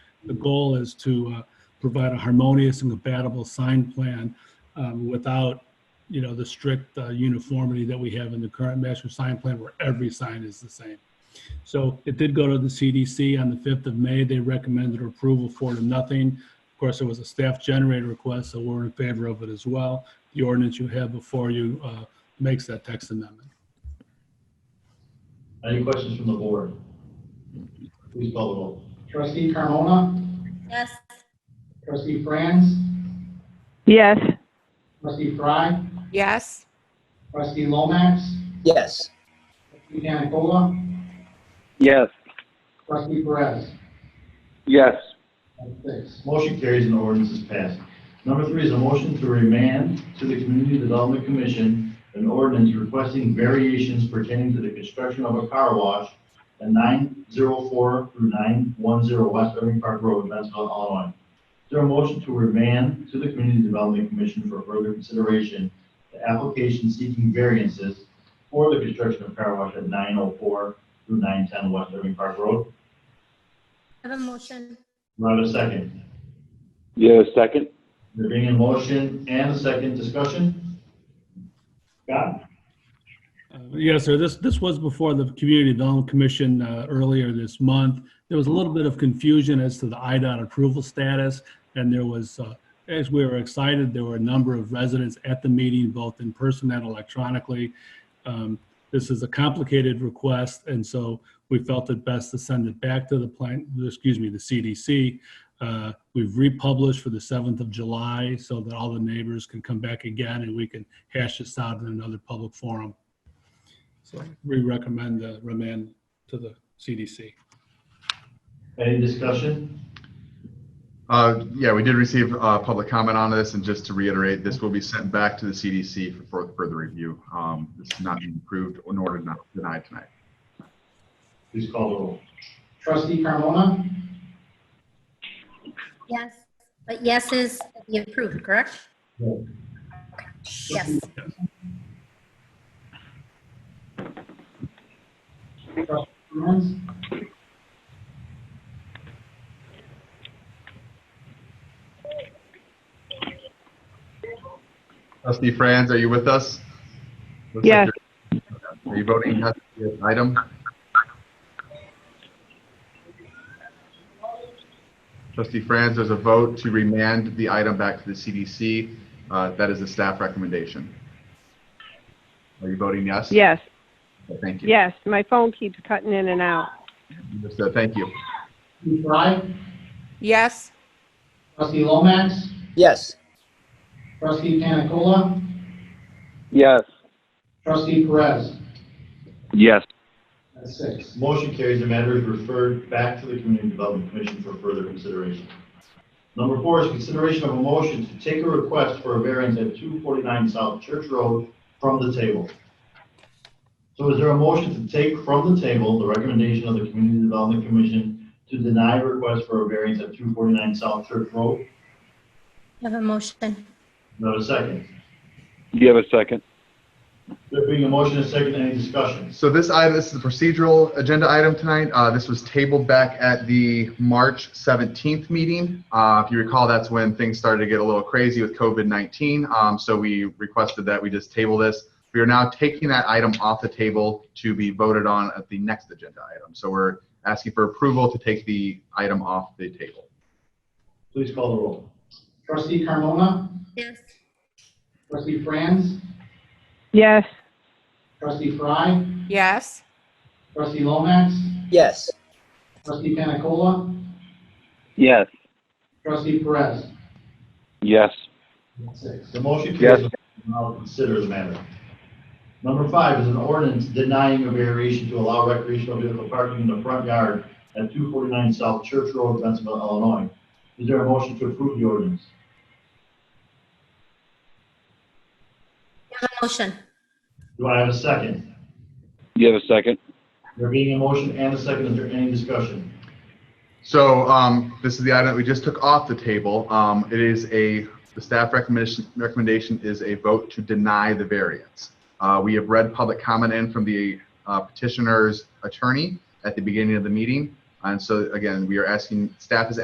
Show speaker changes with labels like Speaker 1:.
Speaker 1: The goal is to uh, provide a harmonious and compatible sign plan um, without, you know, the strict uh, uniformity that we have in the current master sign plan where every sign is the same. So it did go to the CDC on the 5th of May. They recommended approval for to nothing. Of course, there was a staff generated request, so we're in favor of it as well. The ordinance you have before you uh, makes that text amendment.
Speaker 2: Any questions from the board? Please call the roll.
Speaker 3: Trustee Carmona?
Speaker 4: Yes.
Speaker 3: Trustee Franz?
Speaker 5: Yes.
Speaker 3: Trustee Fry?
Speaker 6: Yes.
Speaker 3: Trustee Lomax?
Speaker 7: yes,
Speaker 3: Trustee Cannacola?
Speaker 8: Yes.
Speaker 3: Trustee Perez?
Speaker 8: Yes.
Speaker 3: That's six.
Speaker 2: Motion carries and the ordinance is passed. Number three is a motion to remand to the Community Development Commission an ordinance requesting variations pertaining to the construction of a car wash at 904 through 910 West Irving Park Road, Bensville, Illinois. Is there a motion to remand to the Community Development Commission for further consideration the application seeking variances for the construction of car wash at 904 through 910 West Irving Park Road?
Speaker 4: Have a motion.
Speaker 2: Do I have a second?
Speaker 8: Yes. second?
Speaker 2: There being a motion and a second discussion? Scott?
Speaker 1: Uh, Yes, sir. This, this was before the Community Development Commission uh, earlier this month. There was a little bit of confusion as to the IDOT approval status, and there was, uh, as we were excited, there were a number of residents at the meeting, both in person and electronically. Um, This is a complicated request, and so we felt it best to send it back to the plan, excuse me, the CDC. Uh, We've republished for the 7th of July so that all the neighbors can come back again and we can hash this out in another public forum. So we recommend the remand to the CDC.
Speaker 2: Any discussion?
Speaker 9: Uh, Yeah, we did receive uh, public comment on this, and just to reiterate, this will be sent back to the CDC for fur- further review. Um, This is not being approved nor deni- denied tonight.
Speaker 2: Please call the roll.
Speaker 3: Trustee Carmona?
Speaker 4: Yes. But yes is the approved, correct?
Speaker 2: Yeah.
Speaker 4: Yes.
Speaker 3: Trustee Franz?
Speaker 9: Trustee Franz, are you with us? Looks like
Speaker 5: Yes.
Speaker 9: you're- Are you voting yes to this item? Trustee Franz, there's a vote to remand the item back to the CDC. Uh, That is a staff recommendation. Are you voting yes?
Speaker 5: Yes.
Speaker 9: Thank you.
Speaker 5: Yes. My phone keeps cutting in and out.
Speaker 9: Understood. Thank you.
Speaker 3: Trustee Fry?
Speaker 6: Yes.
Speaker 3: Trustee Lomax?
Speaker 7: yes,
Speaker 3: Trustee Cannacola?
Speaker 8: Yes.
Speaker 3: Trustee Perez?
Speaker 8: Yes.
Speaker 3: That's six.
Speaker 2: Motion carries the matter is referred back to the Community Development Commission for further consideration. Number four is consideration of a motion to take a request for a variance at 249 South Church Road from the table. So is there a motion to take from the table the recommendation of the Community Development Commission to deny request for a variance at 249 South Church Road?
Speaker 4: Have a motion.
Speaker 2: No second.
Speaker 8: You have a second?
Speaker 2: There being a motion and a second, any discussion?
Speaker 9: So this item, this is the procedural agenda item tonight. Uh, this was tabled back at the March 17th meeting. Uh, if you recall, that's when things started to get a little crazy with COVID-19. Um, so we requested that we just table this. We are now taking that item off the table to be voted on at the next agenda item. So we're asking for approval to take the item off the table.
Speaker 2: Please call the roll.
Speaker 3: Trustee Carmona?
Speaker 4: Yes.
Speaker 3: Trustee Franz?
Speaker 5: Yes.
Speaker 3: Trustee Fry?
Speaker 6: Yes.
Speaker 3: Trustee Lomax?
Speaker 7: yes,
Speaker 3: Trustee Cannacola?
Speaker 8: Yes.
Speaker 3: Trustee Perez?
Speaker 8: Yes.
Speaker 3: That's six.
Speaker 2: The motion
Speaker 8: Yes.
Speaker 2: carries. Now consider the matter. Number five is an ordinance denying a variation to allow recreational vehicle parking in the front yard at 249 South Church Road, Bensville, Illinois. Is there a motion to approve the ordinance?
Speaker 4: Have a motion.
Speaker 2: Do I have a second?
Speaker 8: You have a second?
Speaker 2: There being a motion and a second, is there any discussion?
Speaker 9: So um, this is the item that we just took off the table. Um, It is a, the staff recommendation, recommendation is a vote to deny the variance. Uh, We have read public comment in from the uh, petitioner's attorney at the beginning of the meeting. And so again, we are asking, staff is